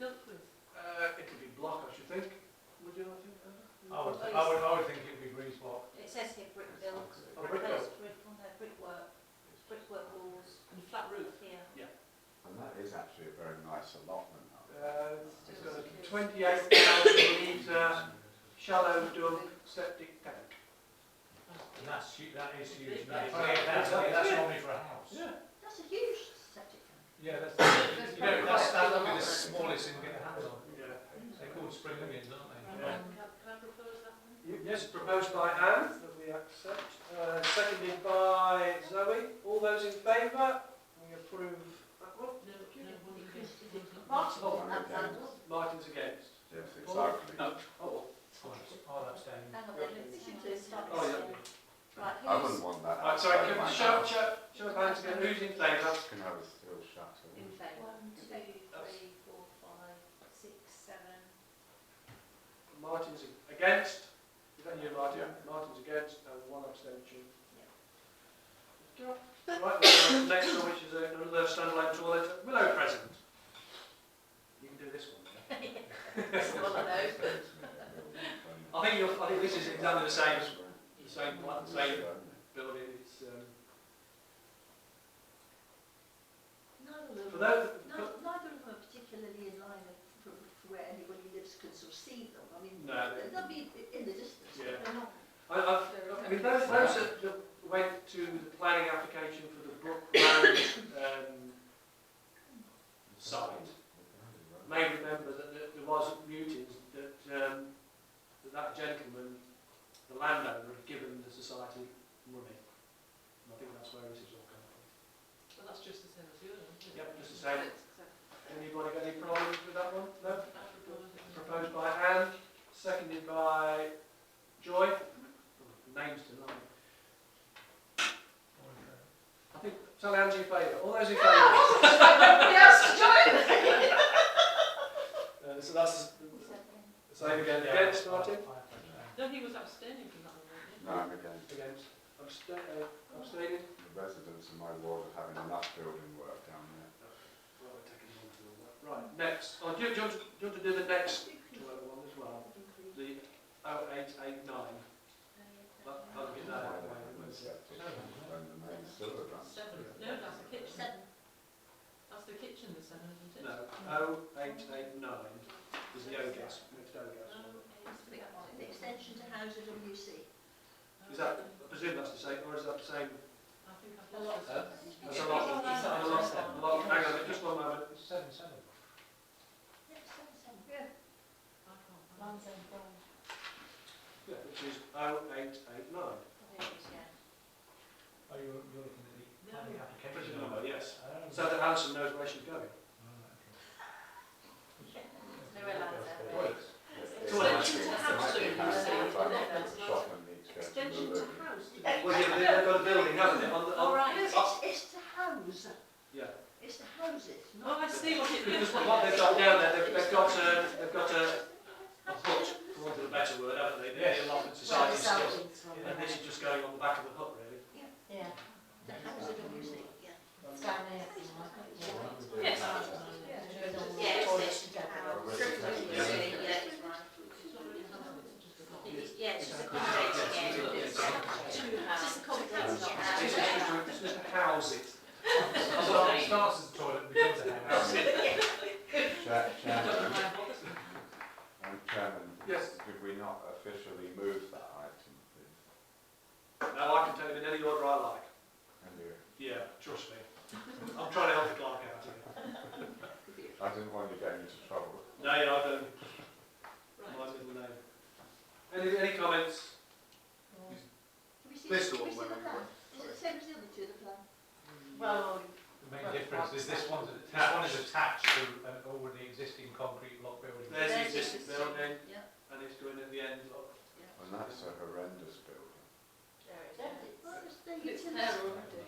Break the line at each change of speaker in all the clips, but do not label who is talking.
Uh, Uh, 28,000 litre shallow dump septic tank.
And that's, hu- that is huge,
Yeah,
mate.
yeah,
That's,
yeah.
that's only for a house.
Yeah,
That's a huge septic tank.
Yeah, that's, you know,
probably
that's,
quite a
that would be the
lot.
smallest thing we get a hands on.
Yeah.
They're called spring onions, aren't
Yeah.
Can I propose that one?
Yes, proposed by Anne that we accept, uh, seconded by Zoe. All those in favour? We approve that one.
No, no, one
Martin, that
Oh,
okay.
of these.
sound was-
Martin's against.
Yes, exactly.
No. Oh,
they? Oh, that's down.
hang on, they didn't listen to us.
Oh,
Right,
I
who's-
wouldn't want that.
well. Right, sorry,
outside
can we
my
show,
house.
show, show of hands again, who's in favour?
Can have a steel shutter.
In favour.
One, two, three, four, five, six, seven.
Martin's against. Is that you, Martin?
Yeah.
Martin's against and one abstention. Right, well, the next one, which is another standalone toilet at Willow Crescent. You can do this one. yeah?
It's one of those.
I think you'll, I think this is exactly the same, the same, pla- same building. It's, um,
Neither of them-
for those, for-
neither- neither of them are particularly in line with- from from where anybody lives can sort of see them. I mean,
No.
they- they'll be in the distance, but
Yeah.
they're not.
I, I,
they're
I
not-
mean, those, those that that went to the planning application for the Brookland, um, site. may remember that there- there was mutins that, um, that that gentleman, the landowner, had given the society money. And I think that's where this is all coming from.
Well, that's just the same as the other one. isn't it?
Yep, just the same.
So,
Anybody got any problems with that one? No?
I propose it.
Proposed by Anne, seconded by Joy. Oh, Names tonight. I think, tell Anne's in favour. All those in favour?
Nobody else is joining.
Uh, so that's
Seven.
the same again. Against, Martin?
No, he was abstaining from that one, wasn't he?
No, I'm against
Against. Absta- uh, Abstaining?
the residents in my ward are having enough building work down there.
Right, we're taking one to the left. Right, next. Oh, do you, do you want to, do you want to do the next toilet one as well? The 0889. That, I'll get that out of
Why
the
they
way.
haven't
won't it?
accepted when the main sewer runs
Seven.
through it.
No, that's the kitchen.
Seven.
That's the kitchen, the seven, isn't it?
No, 0889 is the O-gas, next O-gas one.
The extension to Houser WC.
Is that, I presume that's the same, or is that the same?
I think I've
A lot.
lost
Huh?
it.
That's a lot, that's a lot, a lot, hang on, a minute, just one moment.
Seven, seven.
Yeah, seven, seven. Yeah.
I can't find it.
Mine's on five.
Yeah, which is 0889.
There it is, yeah.
Oh, you're, you're looking at the
Pretty
planning application.
number, yes.
Oh.
So that Alison knows where she's going.
No allowed there.
Well, it's- it's-
Well,
it's-
extension to
it's- it's-
house though, you
it's-
say,
it's like
not
the
that's
shop and the extension
Extension
of
to
the
house.
Well, yeah, they- they've got a building, haven't they, on the,
All
on,
right.
Yes, it's, it's to house.
Yeah.
It's to houses,
Oh,
not.
I see what it
because
is.
what they've got down there, they've, they've got a, they've got a, a hut, for want of a better word, haven't they? They're in London society stuff. And this is just going on the back of the hut, really.
Yeah,
The Houser WC, yeah.
it's down there.
Yes.
Yeah.
It's just to, it's just to house it.
It starts as a toilet and becomes a house.
Cha- Chairman, um, Chairman,
Yes.
could we not officially move that item, please?
Now I can take it in any order I like.
And you-
Yeah, trust me. I'm trying to help the clerk out here.
I didn't want you getting into trouble.
No, yeah, I don't. My middle name. Any, any comments?
This one, where Is it the same as the other two, the plan?
Well,
The main difference is this one's, this one is attached to an already existing concrete block building.
There's the
There's the
existing
existing-
building,
Yeah.
and it's going at the end.
And that's a horrendous building.
Well, it's the
It's
utility, the
there
utility,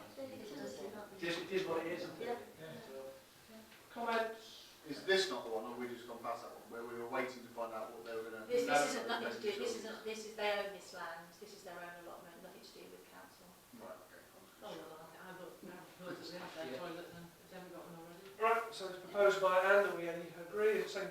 not
It
the.
is, it is what it is, isn't it?
Yeah.
So, Comments?
Is this not the one, or we just gone past that one, where we were waiting to find out what they were going to...
this, this isn't nothing to do, this isn't, this is, they own this land, this is their own allotment, nothing to do with council.
Right, okay.
Oh, well, I look, I look, we have that toilet then, if they haven't got one already.
Right, so it's proposed by Anne, and we agree, it's seconded